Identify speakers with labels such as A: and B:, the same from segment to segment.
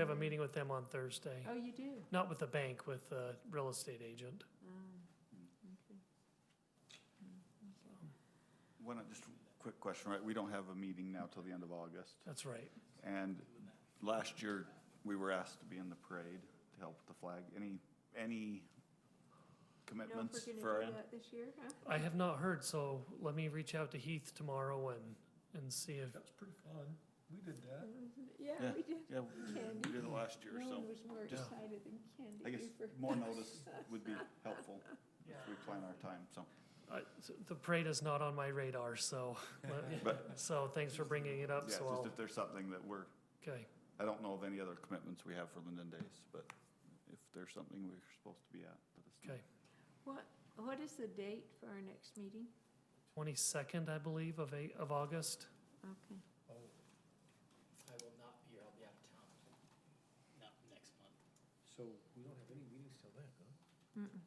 A: have a meeting with them on Thursday.
B: Oh, you do?
A: Not with the bank, with the real estate agent.
B: Ah,
C: Why not, just a quick question, right? We don't have a meeting now till the end of August.
A: That's right.
C: And last year, we were asked to be in the parade to help with the flag. Any, any commitments for our end?
B: this year, huh?
A: I have not heard, so let me reach out to Heath tomorrow and, and see if,
D: That was pretty fun. We did that.
B: Yeah,
C: Yeah.
B: we did.
C: Yeah,
B: Candy.
C: we did it last year,
B: No
C: so
B: one was more
C: just-
B: excited than
C: I
B: Candy
C: guess
B: Hoover.
C: more notice would be helpful if we plan our time, so.
A: I, the parade is not on my radar, so, let-
C: But,
A: so thanks for bringing it up,
C: yeah,
A: so
C: just
A: I'll,
C: if there's something that we're,
A: okay.
C: I don't know of any other commitments we have for Linden Days, but if there's something we're supposed to be at, let us know.
A: Okay.
B: What, what is the date for our next meeting?
A: Twenty-second, I believe, of eight, of August.
B: Okay.
D: Oh,
E: I will not be here, I'll be out of town, not next month.
D: so we don't have any meetings till then, huh?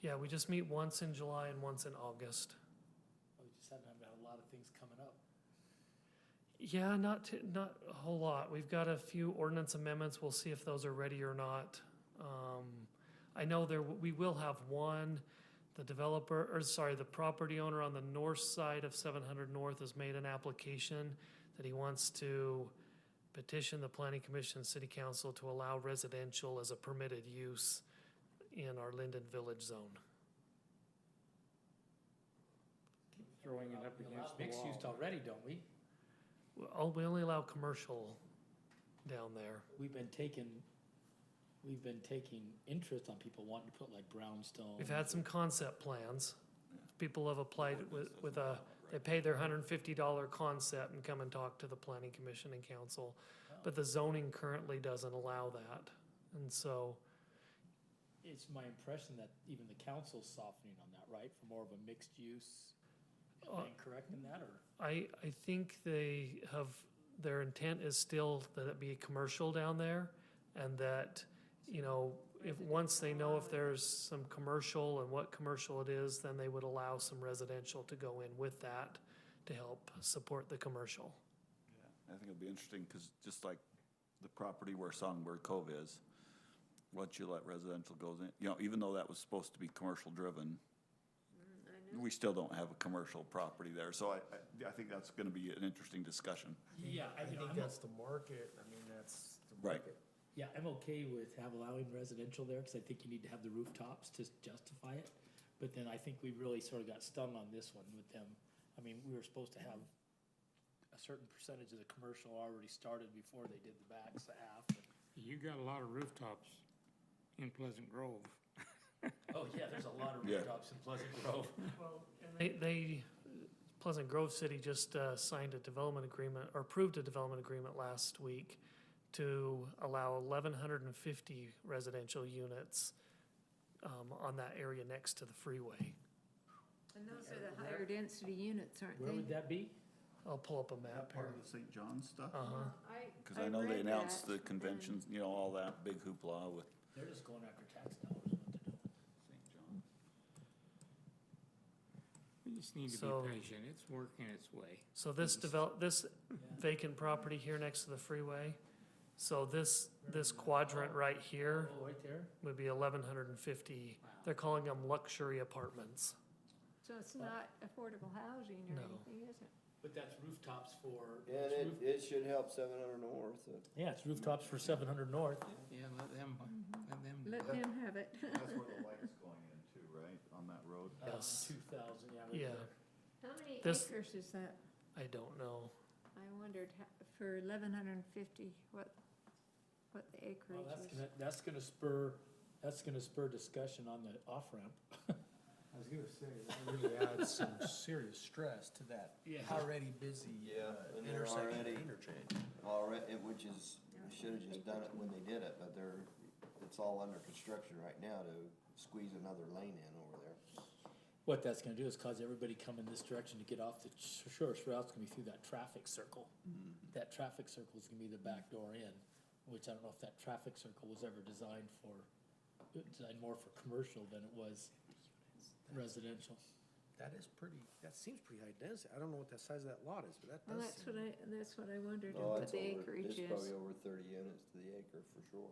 A: Yeah, we just meet once in July and once in August.
E: I just haven't, I've got a lot of things coming up.
A: Yeah, not, t- not a whole lot. We've got a few ordinance amendments. We'll see if those are ready or not. Um, I know there, w- we will have one. The developer, or sorry, the property owner on the north side of seven hundred north has made an application that he wants to petition the planning commission, city council to allow residential as a permitted use in our Linden Village zone.
F: throwing it up
E: We allow
F: against the
E: Mixed
F: wall.
E: use already, don't we?
A: We all- we only allow commercial down there.
E: We've been taking, we've been taking interest on people wanting to put like brownstone.
A: We've had some concept plans. People have applied with, with a, they pay their hundred and fifty dollar concept and come and talk to the planning commission and council. But the zoning currently doesn't allow that. And so,
E: It's my impression that even the council's softening on that, right, for more of a mixed use. Am I
A: Uh,
E: incorrect in that, or?
A: I, I think they have, their intent is still that it be commercial down there. And that, you know, if, once they know if there's some commercial and what commercial it is, then they would allow some residential to go in with that to help support the commercial.
C: I think it'll be interesting, because just like the property where Songbird Cove is, once you let residential goes in, you know, even though that was supposed to be commercial driven, we still don't have a commercial property there, so I, I, I think that's gonna be an interesting discussion.
E: Yeah,
F: I think that's the market, I mean, that's the
C: Right.
F: market.
E: Yeah, I'm okay with have allowing residential there, cause I think you need to have the rooftops to justify it. But then I think we really sort of got stung on this one with them. I mean, we were supposed to have a certain percentage of the commercial already started before they did the backs, the half.
F: You got a lot of rooftops in Pleasant Grove.
E: Oh, yeah, there's a lot of
C: Yeah.
E: rooftops in Pleasant Grove.
A: Well, and They, they, Pleasant Grove City just uh, signed a development agreement, or approved a development agreement last week to allow eleven hundred and fifty residential units um, on that area next to the freeway.
B: And those are the higher density units, aren't
E: Where would
B: they?
E: that be?
A: I'll pull up a map here.
C: the St. John stuff?
A: Uh-huh.
C: Cause I know they announced the conventions, you know, all that big hoopla with
E: They're just going after tax dollars, is what they're doing.
C: St. John.
F: We just need to
A: So-
F: be patient, it's working its way.
A: So this develop, this vacant property here next to the freeway, so this, this quadrant right here
E: Oh, right there?
A: would be eleven hundred and fifty.
E: Wow.
A: They're calling them luxury apartments.
B: So it's not affordable housing or
A: No.
B: anything, is it?
E: But that's rooftops for.
G: Yeah,
E: it's
G: and it,
E: roof-
G: it should help seven hundred north. uh,
E: Yeah, it's rooftops for seven hundred north.
F: Yeah, let them,
B: Mm-hmm.
F: let them.
B: Let them have it.
C: That's where the light's going in too, right, on that road?
A: Yes.
E: Um, Two thousand, yeah. right
A: Yeah.
E: there.
B: How many
A: This-
B: acres is that?
A: I don't know.
B: I wondered ho- for eleven hundred and fifty, what, what the
E: Well, that's
B: acreage is.
E: gonna, that's gonna spur, that's gonna spur discussion on the off-ramp.
D: I was gonna say, that really adds some serious stress to that
E: Yeah.
D: already busy
G: Yeah,
D: uh,
G: and they're
D: intersection
G: already-
D: interchange.
G: Already, which is, we should have just done it when they did it, but they're, it's all under construction right now to squeeze another lane in over there.
E: What that's gonna do is cause everybody coming this direction to get off the sh- shortest route's gonna be through that traffic circle. That traffic circle's gonna be the back door in, which I don't know if that traffic circle was ever designed for, designed more for commercial than it was residential.
D: that is pretty, that seems pretty high density. I don't know what the size of that lot is, but that
B: Well,
D: does
B: that's what
D: seem.
B: I, that's what I wondered,
G: No,
B: what
G: it's
B: the
G: over-
B: acreage is.
G: It's probably over thirty units to the acre for sure.